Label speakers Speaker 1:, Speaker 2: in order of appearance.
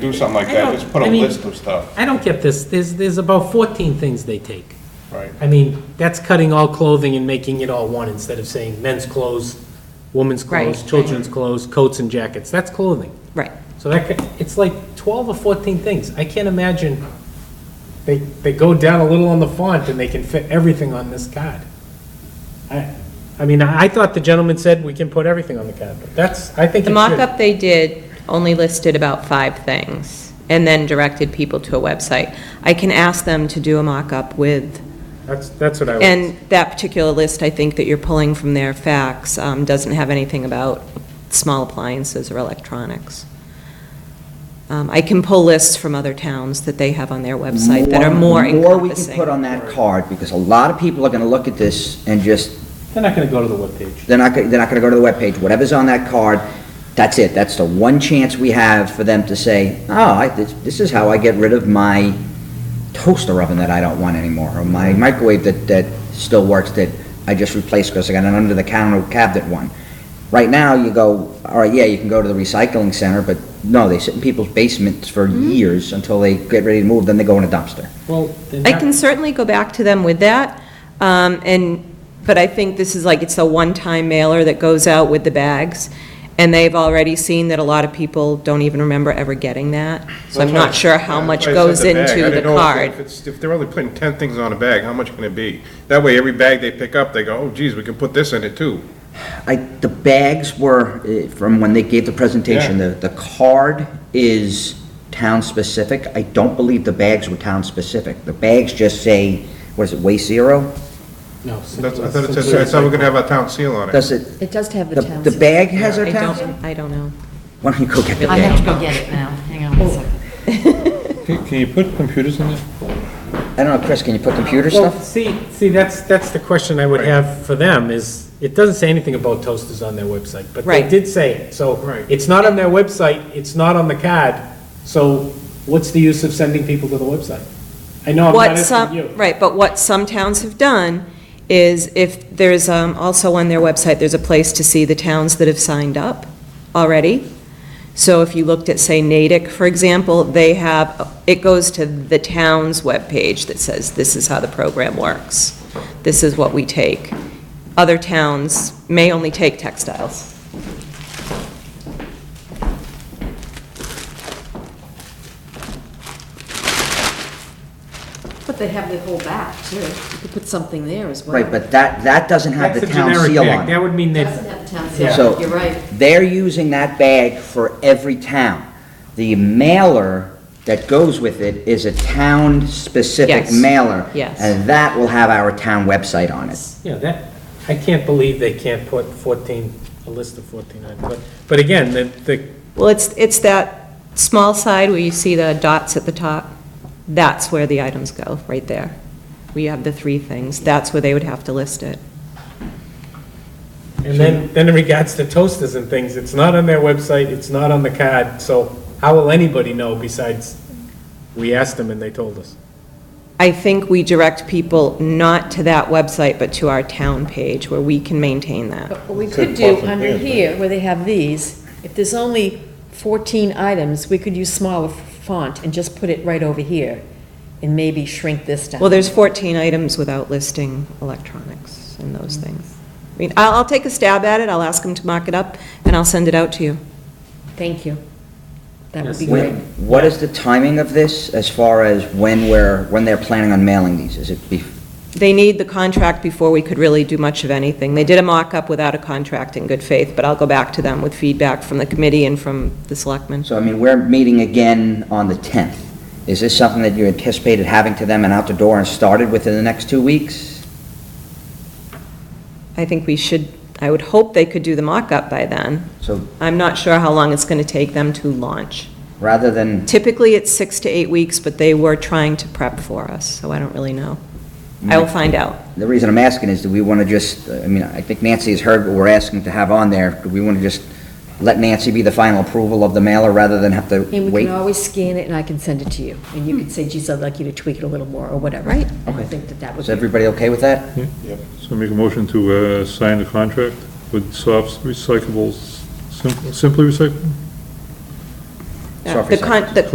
Speaker 1: do something like
Speaker 2: I
Speaker 1: that,
Speaker 2: don't-
Speaker 1: just put a
Speaker 2: I mean-
Speaker 1: list of stuff,
Speaker 2: I don't get this, there's, there's about 14 things they take.
Speaker 1: right?
Speaker 2: I mean, that's cutting all clothing and making it all one instead of saying men's clothes, women's clothes,
Speaker 3: Right.
Speaker 2: children's clothes, coats and jackets. That's clothing.
Speaker 3: Right.
Speaker 2: So that, could- it's like 12 or 14 things. I can't imagine, they, they go down a little on the font and they can fit everything on this card. I, I mean, I thought the gentleman said we can put everything on the card, but that's, I think it
Speaker 3: The
Speaker 2: should.
Speaker 3: mock-up they did only listed about five things, and then directed people to a website. I can ask them to do a mock-up with,
Speaker 2: That's, that's what I was.
Speaker 3: and that particular list, I think that you're pulling from their facts, um, doesn't have anything about small appliances or electronics. Um, I can pull lists from other towns that they have on their website that are more
Speaker 4: More we can
Speaker 3: encompassing.
Speaker 4: put on that card, because a lot of people are gonna look at this and just,
Speaker 2: They're not going to go to the webpage.
Speaker 4: they're not, go- they're not gonna go to the webpage, whatever's on that card, that's it, that's the one chance we have for them to say, oh, I, this, this is how I get rid of my toaster oven that I don't want anymore, or my microwave that, that still works that I just replaced because I got an under-the-counter cabinet one. Right now, you go, all right, yeah, you can go to the recycling center, but no, they sit in people's basements for
Speaker 3: Mm-hmm.
Speaker 4: years until they get ready to move, then they go in a dumpster.
Speaker 2: Well, then
Speaker 3: I
Speaker 2: that-
Speaker 3: can certainly go back to them with that, um, and, but I think this is like, it's a one-time mailer that goes out with the bags, and they've already seen that a lot of people don't even remember ever getting that, so I'm not sure how much
Speaker 1: That's why I
Speaker 3: goes
Speaker 1: said the bag. I
Speaker 3: into the
Speaker 1: didn't know if- if
Speaker 3: card.
Speaker 1: it's- If they're only putting 10 things on a bag, how much can it be? That way, every bag they pick up, they go, oh geez, we can put this in it too.
Speaker 4: I, the bags were, eh, from when they gave the presentation, the, the card is town-specific. I don't believe the bags were town-specific. The bags just say, what is it, Waste Zero?
Speaker 2: No.
Speaker 1: That's, I thought it said, I thought we could have our town seal on it.
Speaker 4: Does it,
Speaker 5: It does have
Speaker 4: the,
Speaker 5: the town.
Speaker 4: the bag has
Speaker 3: I
Speaker 4: a town?
Speaker 3: don't, I don't know.
Speaker 4: Why don't you go get the
Speaker 5: I have to
Speaker 4: bag?
Speaker 5: go get it now. Hang on one second.
Speaker 6: Can you put computers in there?
Speaker 4: I don't know, Chris, can you put computer
Speaker 2: Well,
Speaker 4: stuff?
Speaker 2: see, see, that's, that's the question I would have for them is, it doesn't say anything about toasters on their website, but they
Speaker 3: Right.
Speaker 2: did say it, so.
Speaker 1: Right.
Speaker 2: It's not on their website, it's not on the card, so what's the use of sending people to the website? I know I'm not
Speaker 3: What
Speaker 2: asking
Speaker 3: some,
Speaker 2: you.
Speaker 3: uh, right, but what some towns have done is if there's, um, also on their website, there's a place to see the towns that have signed up already. So if you looked at, say, Natick, for example, they have, it goes to the town's webpage that says, this is how the program works. This is what we take. Other towns may only take textiles.
Speaker 5: But they have the whole back, too. You could put something there as well.
Speaker 4: Right, but that, that doesn't have
Speaker 2: That's
Speaker 4: the
Speaker 2: a
Speaker 4: town
Speaker 2: generic
Speaker 4: seal
Speaker 2: bag,
Speaker 4: on it.
Speaker 2: that would mean
Speaker 5: It
Speaker 2: that.
Speaker 5: Doesn't have the town
Speaker 2: Yeah.
Speaker 4: So-
Speaker 5: seal, you're right.
Speaker 4: They're using that bag for every town. The mailer that goes with it is a town-specific
Speaker 3: Yes.
Speaker 4: mailer.
Speaker 3: Yes.
Speaker 4: And that will have our town website on it.
Speaker 2: Yeah, that, I can't believe they can't put 14, a list of 14 on, but, but again, the, the,
Speaker 3: Well, it's, it's that small side where you see the dots at the top, that's where the items go, right there. We have the three things, that's where they would have to list it.
Speaker 2: and then, then in regards to toasters and things, it's not on their website, it's not on the card, so how will anybody know besides, we asked them and they told us?
Speaker 3: I think we direct people not to that website, but to our town page, where we can maintain that.
Speaker 5: But what we could do under here, where they have these, if there's only 14 items, we could use smaller font and just put it right over here and maybe shrink this down.
Speaker 3: Well, there's 14 items without listing electronics and those things. I mean, I'll, I'll take a stab at it, I'll ask them to mock it up, and I'll send it out to you.
Speaker 5: Thank you. That would be
Speaker 4: When,
Speaker 5: great.
Speaker 4: what is the timing of this as far as when we're, when they're planning on mailing these? Is it be,
Speaker 3: They need the contract before we could really do much of anything. They did a mock-up without a contract in good faith, but I'll go back to them with feedback from the committee and from the selectmen.
Speaker 4: so I mean, we're meeting again on the 10th. Is this something that you anticipated having to them and out the door and started within the next two weeks?
Speaker 3: I think we should, I would hope they could do the mock-up by then.
Speaker 4: So
Speaker 3: I'm not sure how long it's going to take them to launch.
Speaker 4: rather than,
Speaker 3: Typically, it's six to eight weeks, but they were trying to prep for us, so I don't really know. I will find out.
Speaker 4: the reason I'm asking is, do we want to just, I mean, I think Nancy has heard what we're asking to have on there. Do we want to just let Nancy be the final approval of the mailer rather than have to
Speaker 5: And we
Speaker 4: wait?
Speaker 5: can always scan it and I can send it to you. And you could say, geez, I'd like you to tweak it a little more or whatever. Right. I think that that would
Speaker 4: Is
Speaker 5: be.
Speaker 4: everybody okay with that?
Speaker 6: So make a motion to uh, sign the contract with Soft Recyclables, Sim- Simply Recyclable?
Speaker 3: The con- the